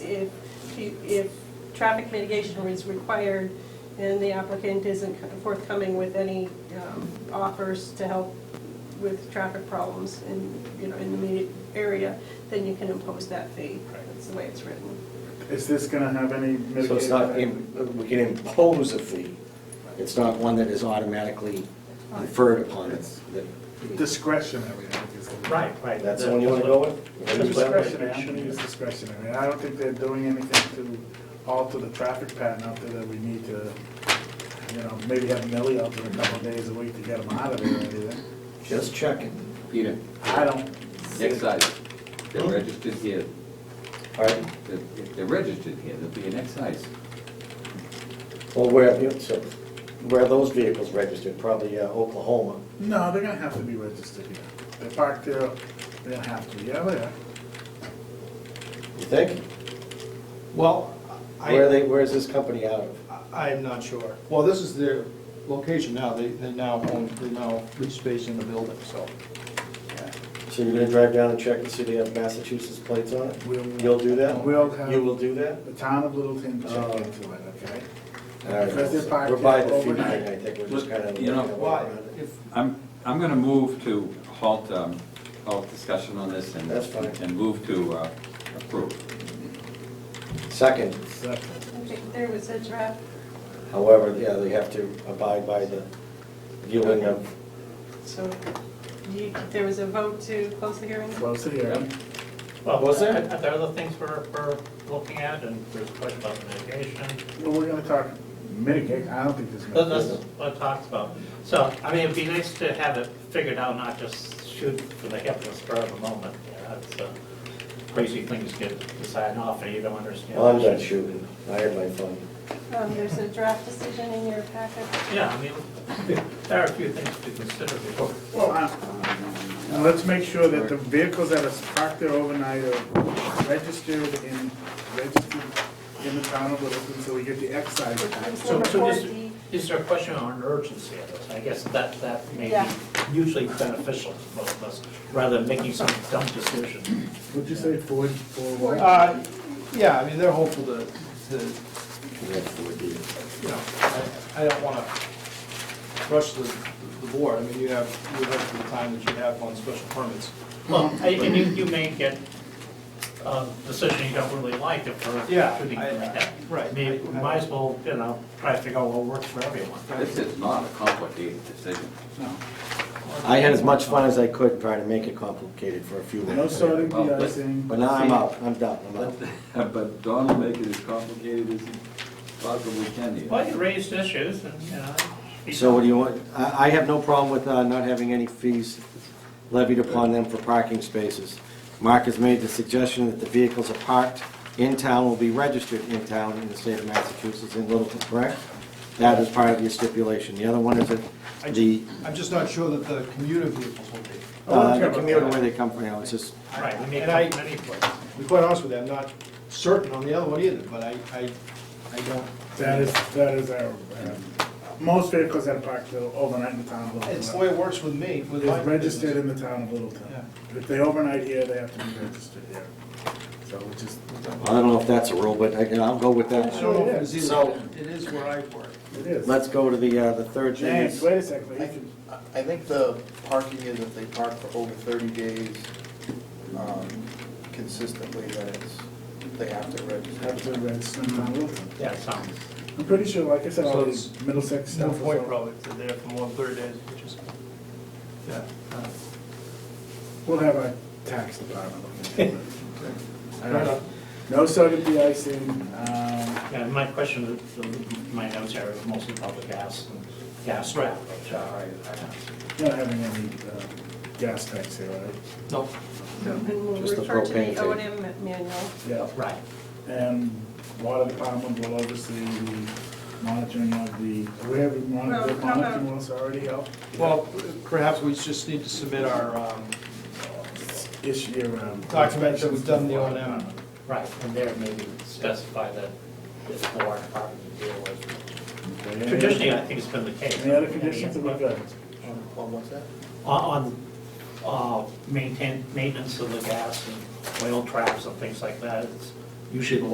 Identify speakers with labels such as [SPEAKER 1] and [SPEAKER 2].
[SPEAKER 1] if traffic mitigation is required and the applicant isn't forthcoming with any um, offers to help with traffic problems in, you know, in the immediate area, then you can impose that fee. That's the way it's written.
[SPEAKER 2] Is this gonna have any mitigating?
[SPEAKER 3] So it's not,
[SPEAKER 2] factor?
[SPEAKER 3] im- we can impose a fee. It's not one that is automatically conferred upon us. That-
[SPEAKER 2] Discretionary, I think is. the-
[SPEAKER 4] Right, right.
[SPEAKER 3] That's the one you want to go with?
[SPEAKER 4] That's what-
[SPEAKER 2] Discretionary, I'm gonna use discretionary. I don't think they're doing anything to alter the traffic pattern out there that we need to, you know, maybe have Millie out there a couple of days a week to get them out of there or anything.
[SPEAKER 3] Just checking.
[SPEAKER 5] Peter,
[SPEAKER 2] I don't. see it.
[SPEAKER 5] excise, they're registered here,
[SPEAKER 3] All right,
[SPEAKER 5] They're- if they're registered here, there'll be an excise.
[SPEAKER 3] well, where, you know, so where are those vehicles registered? Probably uh, Oklahoma.
[SPEAKER 2] No, they're gonna have to be registered here. They park there, they're gonna have to, yeah, they are.
[SPEAKER 3] You think?
[SPEAKER 6] Well,
[SPEAKER 3] Where are
[SPEAKER 6] I,
[SPEAKER 3] they, where is this company out of?
[SPEAKER 6] I'm not sure. Well, this is their location now, they, they now own, they now lease space in the building, so.
[SPEAKER 3] So you're gonna drive down and check and see they have Massachusetts plates on it?
[SPEAKER 2] Mm. We'll-
[SPEAKER 3] You'll do that?
[SPEAKER 2] We'll have-
[SPEAKER 3] You will do that?
[SPEAKER 2] The town of Littleton
[SPEAKER 3] Oh.
[SPEAKER 2] check into it, okay?
[SPEAKER 3] All right.
[SPEAKER 2] Because they're parked
[SPEAKER 3] We're by the
[SPEAKER 2] there
[SPEAKER 3] fee thing,
[SPEAKER 2] overnight.
[SPEAKER 3] I think, we're just kind of.
[SPEAKER 5] You know,
[SPEAKER 6] Why, if,
[SPEAKER 5] I'm, I'm gonna move to halt, um, halt discussion on this and.
[SPEAKER 3] That's fine.
[SPEAKER 5] And move to uh, approve.
[SPEAKER 3] Second,
[SPEAKER 2] Second.
[SPEAKER 1] I think there was a draft
[SPEAKER 3] however, yeah, they have to abide by the viewing of,
[SPEAKER 1] So you, there was a vote to close the hearing?
[SPEAKER 2] Close the hearing.
[SPEAKER 4] Well,
[SPEAKER 3] Oh, Was there?
[SPEAKER 4] are there other things we're, we're looking at, and there's a question about mitigation,
[SPEAKER 2] Well, we're gonna talk mitigate, I don't think there's.
[SPEAKER 4] That-
[SPEAKER 2] gonna
[SPEAKER 4] that's
[SPEAKER 2] be-
[SPEAKER 4] what it talks about. So, I mean, it'd be nice to have it figured out, not just shoot for the hip and spur of the moment, you know, it's, uh, crazy things get decided off, and you don't understand.
[SPEAKER 3] well, I'm done shooting, I had my fun.
[SPEAKER 1] Um, There's a draft decision in your packet.
[SPEAKER 4] Yeah, I mean, there are a few things to consider before.
[SPEAKER 2] Well, I- now let's make sure that the vehicles that are parked there overnight are registered in, registered in the town of Littleton, so we get the excise tax.
[SPEAKER 1] It's
[SPEAKER 4] So,
[SPEAKER 1] number
[SPEAKER 4] so
[SPEAKER 1] four
[SPEAKER 4] is,
[SPEAKER 1] D.
[SPEAKER 4] is there a question on urgency of this? I guess that, that may
[SPEAKER 1] Yeah.
[SPEAKER 4] be usually beneficial to both of us, rather than making some dumb decision.
[SPEAKER 2] Would you say four, four what?
[SPEAKER 6] uh, yeah, I mean, they're hopeful to, to you know, I, I don't wanna rush the, the board, I mean, you have, you have the time that you have on special permits.
[SPEAKER 4] Well, I- and you, you may get a decision you don't really like if we're
[SPEAKER 6] Yeah,
[SPEAKER 4] shooting
[SPEAKER 6] I-
[SPEAKER 4] like that.
[SPEAKER 6] right.
[SPEAKER 4] I mean, we might as well, you know, try to figure out what works for everyone.
[SPEAKER 5] This is not a complicated decision.
[SPEAKER 3] I had as much fun as I could trying to make it complicated for a few
[SPEAKER 2] No
[SPEAKER 3] minutes.
[SPEAKER 2] sorting,
[SPEAKER 5] Well, but-
[SPEAKER 2] de-icing.
[SPEAKER 3] But now I'm out, I'm done, I'm out.
[SPEAKER 5] But Don will make it as complicated as he possibly can here.
[SPEAKER 4] Well, you raised issues and, you know. be-
[SPEAKER 3] So what do you want, I, I have no problem with uh, not having any fees levied upon them for parking spaces. Mark has made the suggestion that the vehicles are parked in town will be registered in town in the state of Massachusetts in Littleton, correct? That is part of your stipulation. The other one is that the,
[SPEAKER 6] I'm just not sure that the commuter vehicles will be.
[SPEAKER 3] uh, the commuter where they come from, you know, it's just,
[SPEAKER 4] Right, we make
[SPEAKER 6] And I-
[SPEAKER 4] many places.
[SPEAKER 6] To be quite honest with you, I'm not certain on the other one either, but I, I, I don't.
[SPEAKER 2] That is, that is our, um, most vehicles that are parked there overnight in the town of Littleton.
[SPEAKER 6] It's the way it works with me, with my
[SPEAKER 2] Is registered
[SPEAKER 6] business.
[SPEAKER 2] in the town of Littleton.
[SPEAKER 6] Yeah.
[SPEAKER 2] If they overnight here, they have to be registered here. So we just,
[SPEAKER 3] I don't know if that's a rule, but I, I'll go with
[SPEAKER 6] I don't know
[SPEAKER 3] that.
[SPEAKER 6] if it is
[SPEAKER 3] So-
[SPEAKER 6] either, it is where I work.
[SPEAKER 2] it is.
[SPEAKER 3] Let's go to the, uh, the third thing.
[SPEAKER 2] James,
[SPEAKER 3] is-
[SPEAKER 2] wait a second.
[SPEAKER 7] I
[SPEAKER 2] Ethan.
[SPEAKER 7] I think the parking is if they park for over thirty days um, consistently, that it's, they have to
[SPEAKER 2] Have to
[SPEAKER 7] register.
[SPEAKER 2] register in town of Littleton.
[SPEAKER 4] Yeah, sounds.
[SPEAKER 2] Mm-hmm. I'm pretty sure, like I said, all
[SPEAKER 6] So
[SPEAKER 2] these Middlesex
[SPEAKER 6] No
[SPEAKER 2] stuff. is
[SPEAKER 6] point
[SPEAKER 2] all-
[SPEAKER 6] probably, if they're there for more than thirty days, which is, yeah. uh,
[SPEAKER 2] We'll have our tax department look into it.
[SPEAKER 6] Fair enough.
[SPEAKER 2] No sodium de-icing, um,
[SPEAKER 4] Yeah, my question, is- my notes are mostly about the gas and gas trap, which are,
[SPEAKER 2] not having any uh, gas tax here, right?
[SPEAKER 6] No,
[SPEAKER 1] And we'll
[SPEAKER 3] Just the
[SPEAKER 1] refer to
[SPEAKER 3] propane
[SPEAKER 1] the
[SPEAKER 3] fee.
[SPEAKER 1] O and M manual.
[SPEAKER 2] Yeah,
[SPEAKER 4] right.
[SPEAKER 2] and water department will oversee the monitoring of the, we have
[SPEAKER 1] Well,
[SPEAKER 2] monitored
[SPEAKER 1] how about-
[SPEAKER 2] monitoring wells already out
[SPEAKER 6] well, perhaps we just need to submit our, um,
[SPEAKER 2] this year. um,
[SPEAKER 6] document that we've done the O and M.
[SPEAKER 4] Right, and there maybe specify that it's the water department you deal with.
[SPEAKER 2] Okay, any other-
[SPEAKER 4] Traditionally, I think it's been the case.
[SPEAKER 2] Any other conditions that we've got?
[SPEAKER 7] On what's that?
[SPEAKER 4] On, on, uh, maintain, maintenance of the gas and oil traps and things like that, it's usually the